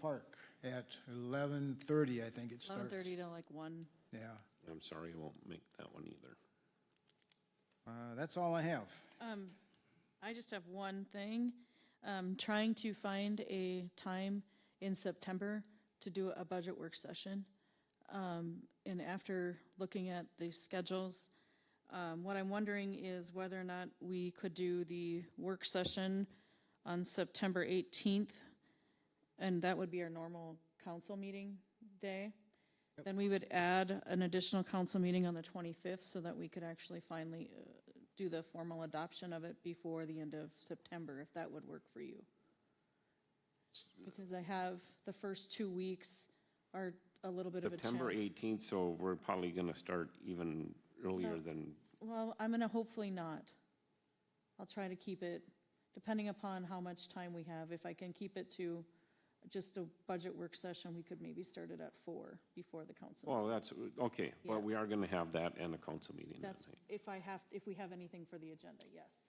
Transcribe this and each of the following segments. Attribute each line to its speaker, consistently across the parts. Speaker 1: Park at eleven thirty, I think it starts.
Speaker 2: Eleven thirty to like one.
Speaker 1: Yeah,
Speaker 3: I'm sorry, I won't make that one either.
Speaker 1: uh, that's all I have.
Speaker 2: Um, I just have one thing. Um, trying to find a time in September to do a budget work session. Um, and after looking at the schedules, um, what I'm wondering is whether or not we could do the work session on September eighteenth. And that would be our normal council meeting day. Then we would add an additional council meeting on the twenty-fifth so that we could actually finally uh, do the formal adoption of it before the end of September, if that would work for you. Because I have, the first two weeks are a little bit of a
Speaker 3: September
Speaker 2: challenge.
Speaker 3: 18th, so we're probably going to start even earlier than,
Speaker 2: Well, I'm gonna hopefully not. I'll try to keep it, depending upon how much time we have, if I can keep it to just a budget work session, we could maybe start it at four before the council.
Speaker 3: well, that's, okay,
Speaker 2: Yeah.
Speaker 3: but we are going to have that and a council meeting that
Speaker 2: That's
Speaker 3: night.
Speaker 2: if I have, if we have anything for the agenda, yes.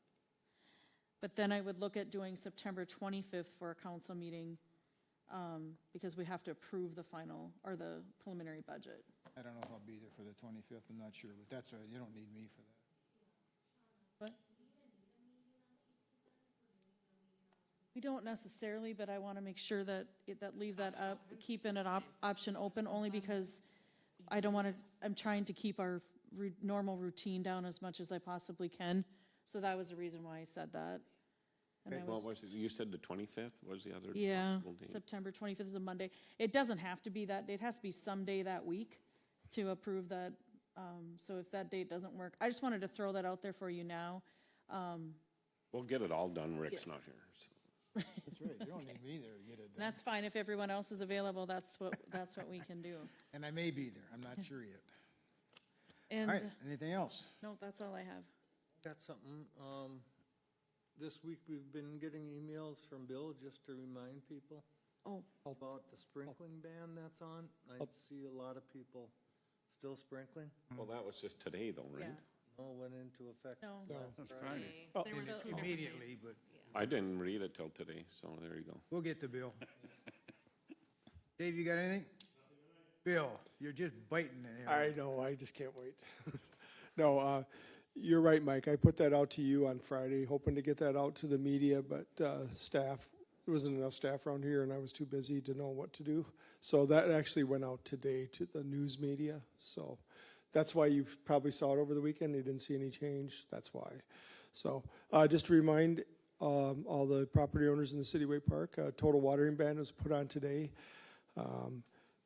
Speaker 2: But then I would look at doing September 25th for a council meeting, um, because we have to approve the final, or the preliminary budget.
Speaker 1: I don't know if I'll be there for the twenty-fifth, I'm not sure, but that's all right, you don't need me for that.
Speaker 2: We don't necessarily, but I want to make sure that, it- that leave that up, keeping an op, option open, only because I don't want to, I'm trying to keep our ru- normal routine down as much as I possibly can. So that was the reason why I said that. And I
Speaker 3: Well,
Speaker 2: was-
Speaker 3: was, it- you said the 25th was the other
Speaker 2: Yeah,
Speaker 3: possible date?
Speaker 2: September 25th is a Monday. It doesn't have to be that, it has to be some day that week to approve that. um, So if that date doesn't work, I just wanted to throw that out there for you now.
Speaker 3: We'll get it all done, Rick's not here. so.
Speaker 1: That's right, you don't need me there to get it
Speaker 2: And
Speaker 1: done.
Speaker 2: that's fine, if everyone else is available, that's what, that's what we can do.
Speaker 1: And I may be there, I'm not sure yet. All right,
Speaker 2: And,
Speaker 1: anything else?
Speaker 2: no, that's all I have.
Speaker 4: Got something, um, this week we've been getting emails from Bill just to remind people
Speaker 2: Oh,
Speaker 4: about the sprinkling ban that's on. I see a lot of people still sprinkling.
Speaker 3: Well, that was just today though,
Speaker 2: yeah,
Speaker 3: right?
Speaker 4: No, went into effect.
Speaker 2: no.
Speaker 4: last Friday.
Speaker 5: Friday. There were two different
Speaker 1: Immediately,
Speaker 5: days.
Speaker 1: but
Speaker 3: I didn't read it till today, so there you go.
Speaker 1: we'll get the bill. Dave, you got anything? Bill, you're just biting it. here.
Speaker 6: I know, I just can't wait. No, uh, you're right, Mike, I put that out to you on Friday, hoping to get that out to the media, but, uh, staff, there wasn't enough staff around here and I was too busy to know what to do. So that actually went out today to the news media, so that's why you probably saw it over the weekend, you didn't see any change, that's why. So, uh, just to remind, um, all the property owners in the Cityway Park, a total watering ban was put on today. Um,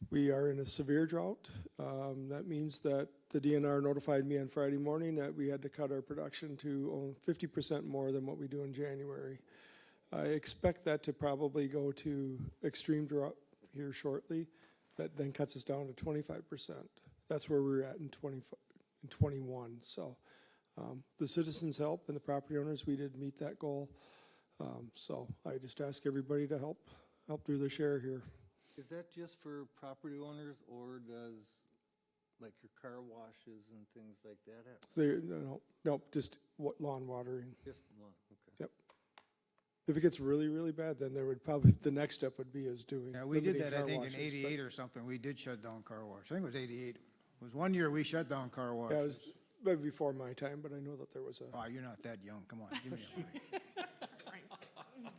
Speaker 6: We are in a severe drought. Um, that means that the DNR notified me on Friday morning that we had to cut our production to fifty percent more than what we do in January. I expect that to probably go to extreme drought here shortly. That then cuts us down to twenty-five percent. That's where we're at in twenty, in twenty-one, so. Um, the citizens' help and the property owners, we did meet that goal. Um, so I just ask everybody to help, help do their share here.
Speaker 4: Is that just for property owners or does, like your car washes and things like that happen?
Speaker 6: There, no, no, no, just wa- lawn watering,
Speaker 4: Just one, okay.
Speaker 6: yep. If it gets really, really bad, then there would probably, the next step would be is doing.
Speaker 1: Yeah, we did
Speaker 6: limiting
Speaker 1: that, I
Speaker 6: car
Speaker 1: think, in
Speaker 6: washes, but-
Speaker 1: eighty-eight or something, we did shut down car wash, I think it was eighty-eight. It was one year we shut down car wash.
Speaker 6: Yeah, it was, but before my time, but I know that there was a,
Speaker 1: Oh, you're not that young, come on, give me a break.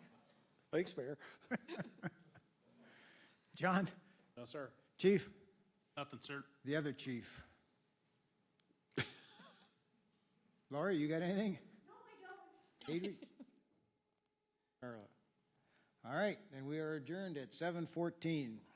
Speaker 6: thanks, Mayor.
Speaker 1: John?
Speaker 7: No, sir.
Speaker 1: Chief?
Speaker 7: Nothing, sir.
Speaker 1: The other chief. Laura, you got anything? No, I don't. Adri? Carla. All right, then we are adjourned at seven fourteen.